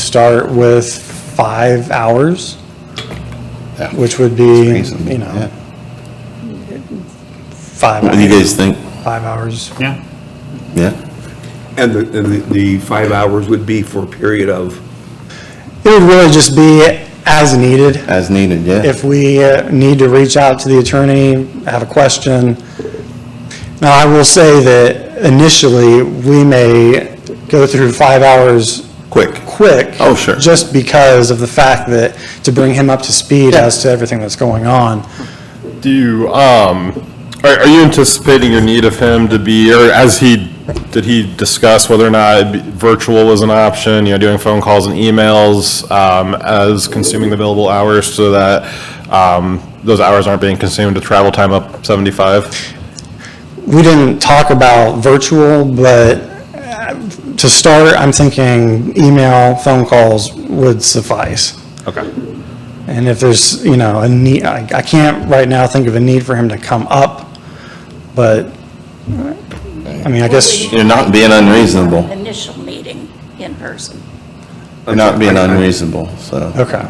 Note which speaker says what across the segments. Speaker 1: start with five hours,
Speaker 2: Yeah.
Speaker 1: which would be,
Speaker 2: Reasonable,
Speaker 1: you know,
Speaker 2: yeah.
Speaker 1: five,
Speaker 3: What do you
Speaker 1: hours-
Speaker 3: guys think?
Speaker 1: five hours.
Speaker 4: Yeah.
Speaker 3: Yeah?
Speaker 5: And the, and the- the five hours would be for a period of,
Speaker 1: It would really just be as needed.
Speaker 3: As needed, yeah?
Speaker 1: If we uh, need to reach out to the attorney, have a question. Now, I will say that initially, we may go through five hours
Speaker 3: Quick.
Speaker 1: quick.
Speaker 3: Oh, sure.
Speaker 1: Just because of the fact that, to bring him up to speed as to everything that's going on.
Speaker 6: Do you, um, are, are you anticipating your need of him to be, or as he, did he discuss whether or not it'd be- virtual was an option, you know, doing phone calls and emails, um, as consuming the billable hours so that, um, those hours aren't being consumed to travel time up seventy-five?
Speaker 1: We didn't talk about virtual, but uh, to start, I'm thinking email, phone calls would suffice.
Speaker 6: Okay.
Speaker 1: And if there's, you know, a need, I I can't right now think of a need for him to come up, but, I mean, I guess,
Speaker 3: You're not being unreasonable.
Speaker 7: Initial meeting in person.
Speaker 3: You're not being unreasonable, so.
Speaker 1: okay.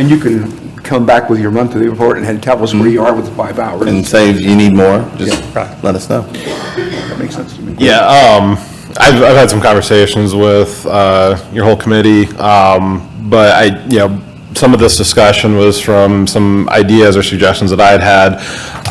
Speaker 5: and you can come back with your monthly report and tell us where you are with the five hours.
Speaker 3: And say if you need more, just
Speaker 1: Yeah.
Speaker 3: let us know.
Speaker 5: That makes sense to me.
Speaker 6: Yeah, um, I've, I've had some conversations with, uh, your whole committee, um, but I, you know, some of this discussion was from some ideas or suggestions that I'd had.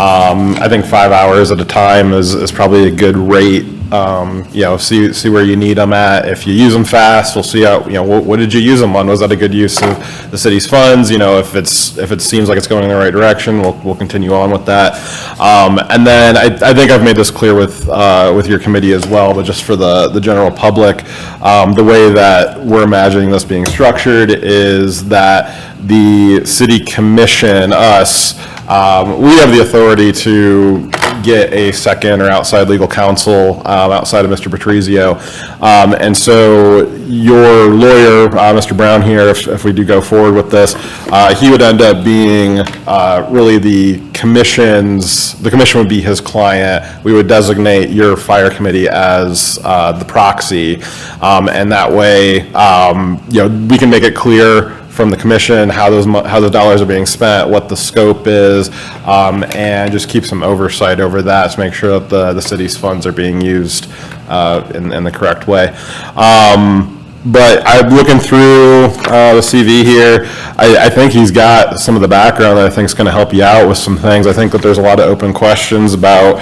Speaker 6: Um, I think five hours at a time is, is probably a good rate. Um, you know, see, see where you need them at. If you use them fast, we'll see how, you know, what, what did you use them on? Was that a good use of the city's funds? You know, if it's, if it seems like it's going in the right direction, we'll, we'll continue on with that. Um, and then I, I think I've made this clear with, uh, with your committee as well, but just for the, the general public, um, the way that we're imagining this being structured is that the city commission, us, um, we have the authority to get a second or outside legal counsel, um, outside of Mr. Patrizio. Um, and so your lawyer, uh, Mr. Brown here, if, if we do go forward with this, uh, he would end up being, uh, really the commission's, the commission would be his client. We would designate your fire committee as, uh, the proxy. Um, and that way, um, you know, we can make it clear from the commission, how those, mo- how those dollars are being spent, what the scope is, um, and just keep some oversight over that to make sure that the, the city's funds are being used, uh, in, in the correct way. Um, but I'm looking through, uh, the CV here, I, I think he's got some of the background that I think is gonna help you out with some things. I think that there's a lot of open questions about,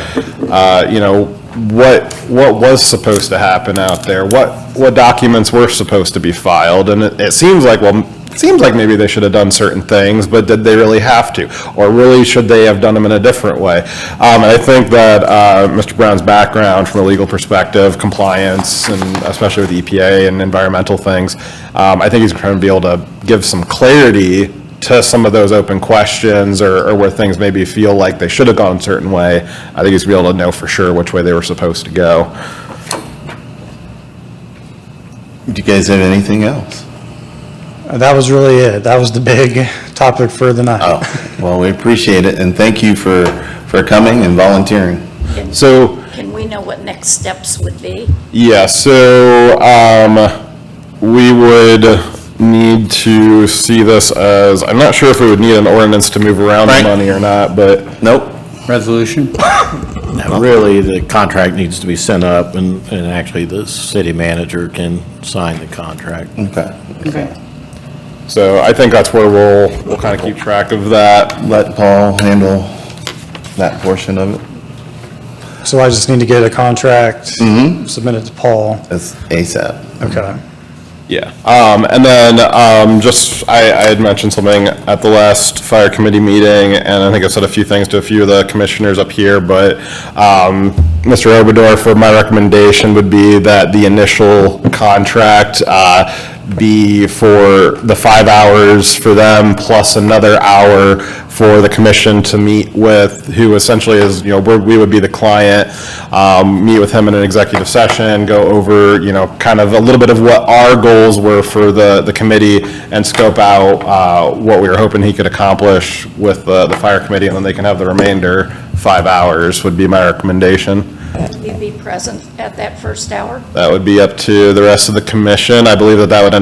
Speaker 6: uh, you know, what, what was supposed to happen out there? What, what documents were supposed to be filed? And it, it seems like, well, it seems like maybe they should have done certain things, but did they really have to? Or really, should they have done them in a different way? Um, and I think that, uh, Mr. Brown's background from a legal perspective, compliance, and especially with EPA and environmental things, um, I think he's going to be able to give some clarity to some of those open questions or, or where things maybe feel like they should have gone a certain way, I think he's be able to know for sure which way they were supposed to go.
Speaker 3: Do you guys have anything else?
Speaker 1: That was really it. That was the big topic for the night.
Speaker 3: Oh, well, we appreciate it, and thank you for, for coming and volunteering.
Speaker 7: Can-
Speaker 6: So,
Speaker 7: Can we know what next steps would be?
Speaker 6: yeah, so, um, we would need to see this as, I'm not sure if we would need an ordinance to move around the
Speaker 8: Right.
Speaker 6: money or not, but
Speaker 3: Nope,
Speaker 8: resolution? Really, the contract needs to be sent up, and, and actually, the city manager can sign the contract.
Speaker 3: okay.
Speaker 6: So I think that's where we'll, we'll kind of keep track of that.
Speaker 3: Let Paul handle that portion of it,
Speaker 1: So I just need to get a contract submitted to Paul.
Speaker 3: that's ASAP.
Speaker 1: Okay.
Speaker 6: Yeah. Um, and then, um, just, I, I had mentioned something at the last fire committee meeting, and I think I said a few things to a few of the commissioners up here, but, um, Mr. Obador, for my recommendation would be that the initial contract, uh, be for the five hours for them, plus another hour for the commission to meet with, who essentially is, you know, we're- we would be the client, um, meet with him in an executive session, go over, you know, kind of a little bit of what our goals were for the, the committee, and scope out uh, what we were hoping he could accomplish with the, the fire committee, and then they can have the remainder five hours, would be my recommendation.
Speaker 7: Would we be present at that first hour?
Speaker 6: That would be up to the rest of the commission. I believe that that would end